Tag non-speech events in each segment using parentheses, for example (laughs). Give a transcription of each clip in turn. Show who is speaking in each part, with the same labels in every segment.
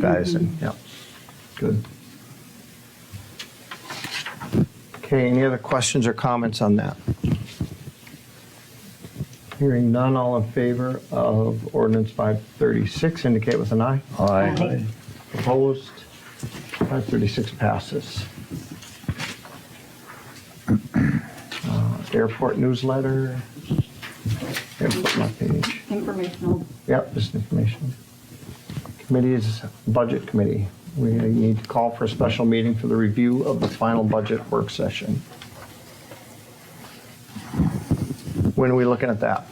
Speaker 1: guys and, yeah.
Speaker 2: Good.
Speaker 1: Okay, any other questions or comments on that? Hearing none, all in favor of ordinance 536, indicate with an eye.
Speaker 2: Aye.
Speaker 1: Opposed? 536 passes. Uh, Airport newsletter. Airport my page.
Speaker 3: Informational.
Speaker 1: Yep, just information. Committee is Budget Committee. We need to call for a special meeting for the review of the final budget work session. When are we looking at that?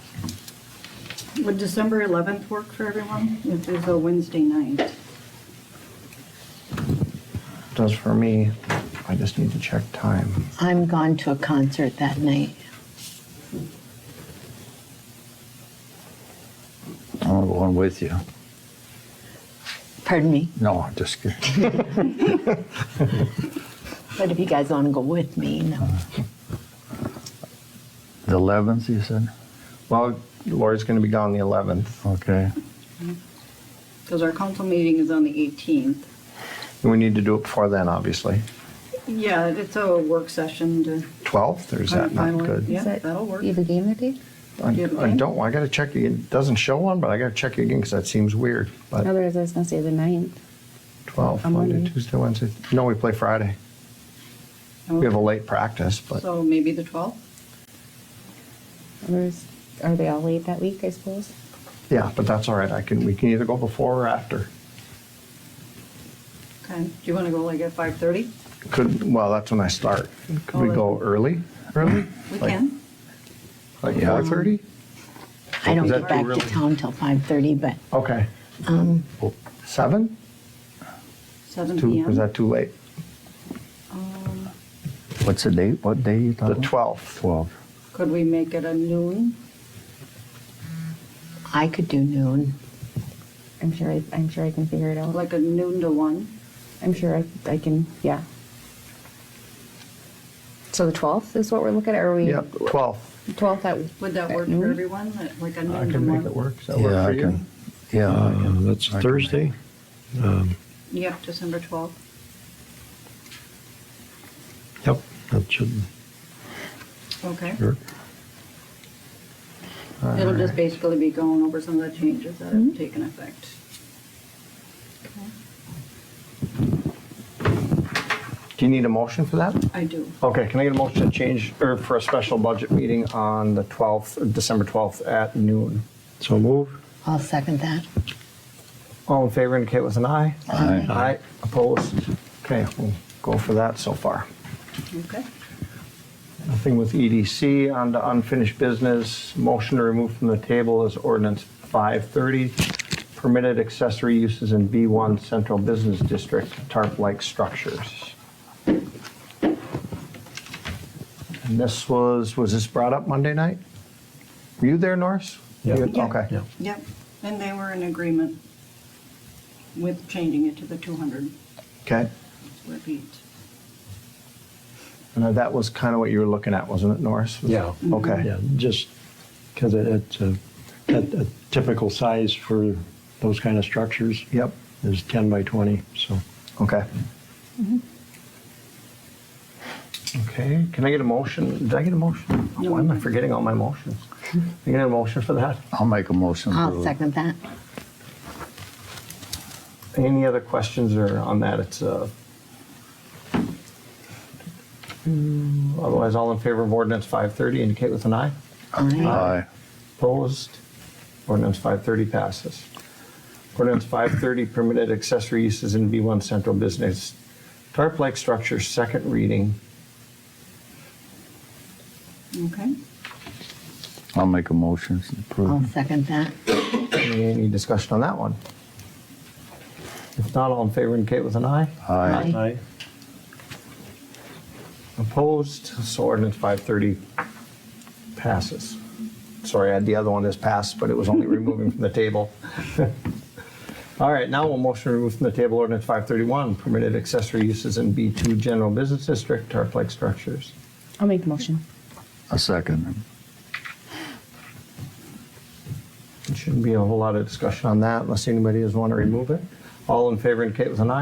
Speaker 3: Would December 11th work for everyone? It is a Wednesday night.
Speaker 1: Does for me, I just need to check time.
Speaker 4: I'm gone to a concert that night.
Speaker 2: I'm going with you.
Speaker 4: Pardon me,
Speaker 2: No, I'm just kidding.
Speaker 4: but if you guys want to go with me, no.
Speaker 1: Uh-huh.
Speaker 2: The 11th, you said?
Speaker 1: Well, Lori's going to be gone the 11th.
Speaker 2: Okay.
Speaker 3: Because our council meeting is on the 18th.
Speaker 1: We need to do it before then, obviously.
Speaker 3: Yeah, it's a work session to.
Speaker 1: 12th, or is that not
Speaker 3: Finally,
Speaker 1: good?
Speaker 3: yeah.
Speaker 5: Is that-
Speaker 3: that'll work.
Speaker 5: You have a game that day?
Speaker 1: I I don't, I got to check, it doesn't show one, but I got to check it again because that seems weird. But
Speaker 5: No, there's, I was gonna say the ninth.
Speaker 1: 12,
Speaker 5: On
Speaker 1: Monday,
Speaker 5: Monday.
Speaker 1: Tuesday, Wednesday. No, we play Friday. We have a late practice, but
Speaker 3: So maybe the 12th?
Speaker 5: There's, are they all late that week, I suppose?
Speaker 1: yeah, but that's all right. I can, we can either go before or after.
Speaker 3: Okay. Do you want to go like at 5:30?
Speaker 1: Could, well, that's when I start. Could we
Speaker 3: Oh,
Speaker 1: go early? Early?
Speaker 3: We
Speaker 1: Like-
Speaker 3: can.
Speaker 1: Like
Speaker 2: Yeah.
Speaker 1: 4:30?
Speaker 4: I don't
Speaker 1: Is
Speaker 4: get
Speaker 1: that
Speaker 4: back
Speaker 1: too
Speaker 4: to
Speaker 1: early?
Speaker 4: town till 5:30, but
Speaker 1: Okay.
Speaker 3: Um,
Speaker 1: Oh, Seven?
Speaker 3: 7
Speaker 1: Too,
Speaker 3: PM?
Speaker 1: is that too late?
Speaker 3: Um,
Speaker 2: What's the date? What day you
Speaker 1: The
Speaker 2: talking?
Speaker 1: 12th?
Speaker 2: 12.
Speaker 3: Could we make it a noon?
Speaker 4: I could do noon.
Speaker 5: I'm sure, I- I'm sure I can figure it out.
Speaker 3: Like a noon to 1?
Speaker 5: I'm sure I, I can, yeah. So the twelfth is what we're looking at, or are we?
Speaker 1: Yep, 12th.
Speaker 5: Twelfth at.
Speaker 3: Would that
Speaker 5: at
Speaker 3: work
Speaker 5: noon?
Speaker 3: for everyone? Like- Like a
Speaker 1: I
Speaker 3: noon to
Speaker 1: can make
Speaker 3: 1?
Speaker 1: it work. Does that
Speaker 2: Yeah,
Speaker 1: work for
Speaker 2: I
Speaker 1: you?
Speaker 2: can. Yeah. I
Speaker 6: Uh,
Speaker 2: can-
Speaker 6: That's
Speaker 2: I can
Speaker 6: Thursday.
Speaker 3: Yep, December 12th.
Speaker 6: Yep, that should
Speaker 3: Okay.
Speaker 6: work.
Speaker 3: It'll just basically be going over some of the changes that
Speaker 1: Mm-hmm.
Speaker 3: have taken effect.
Speaker 1: Do you need a motion for that?
Speaker 3: I do.
Speaker 1: Okay, can I get a motion to change, or for a special budget meeting on the 12th, December 12th at noon?
Speaker 6: So move.
Speaker 4: I'll second that.
Speaker 1: All in favor indicate with an aye.
Speaker 2: Aye.
Speaker 1: Aye, opposed? Okay, we'll go for that so far.
Speaker 3: Okay.
Speaker 1: Nothing with EDC, on to unfinished business. Motion to remove from the table is ordinance 530, permitted accessory uses in B1 Central Business District, tarp-like structures. And this was, was this brought up Monday night? Were you there, Norris?
Speaker 6: Yeah.
Speaker 1: You-
Speaker 3: Yeah.
Speaker 1: Okay.
Speaker 6: Yeah.
Speaker 3: Yep, and they were in agreement with changing it to the 200
Speaker 1: Okay.
Speaker 3: square feet.
Speaker 1: And that was kind of what you were looking at, wasn't it, Norris? Was-
Speaker 6: Yeah.
Speaker 1: Okay.
Speaker 6: Mm-hmm. Yeah, just because it's a, a a typical size for those kind of structures.
Speaker 1: Yep.
Speaker 6: Is 10 by 20, so.
Speaker 1: Okay. Mm-hmm. Okay, can I get a motion? Did I get a motion? Oh,
Speaker 3: No.
Speaker 1: Why am I forgetting all my motions? Can I get a motion for that?
Speaker 2: I'll make a motion. to-
Speaker 4: I'll second that.
Speaker 1: Any other questions or on that? It's, uh, otherwise, all in favor of ordinance 530 indicate with an eye. Uh-huh.
Speaker 4: Aye.
Speaker 2: Aye.
Speaker 1: Opposed? Ordinance 530 passes. Ordinance 530, permitted accessory uses in B1 Central Business. Tarp-like structure, second reading.
Speaker 3: Okay,
Speaker 2: I'll make a motion to
Speaker 4: I'll
Speaker 2: approve.
Speaker 4: second that.
Speaker 1: Any discussion on that one? If not, all in favor indicate with an aye.
Speaker 2: Aye.
Speaker 6: Aye.
Speaker 1: Opposed? So ordinance 530 passes. Sorry, I had the other one as passed, but it was only removing from the table. (laughs) All right, now we'll motion to remove from the table ordinance 531, permitted accessory uses in B2 General Business District, tarp-like structures.
Speaker 5: I'll make the motion.
Speaker 2: A second.
Speaker 1: There shouldn't be a whole lot of discussion on that unless anybody does want to remove it. All in favor indicate with an eye.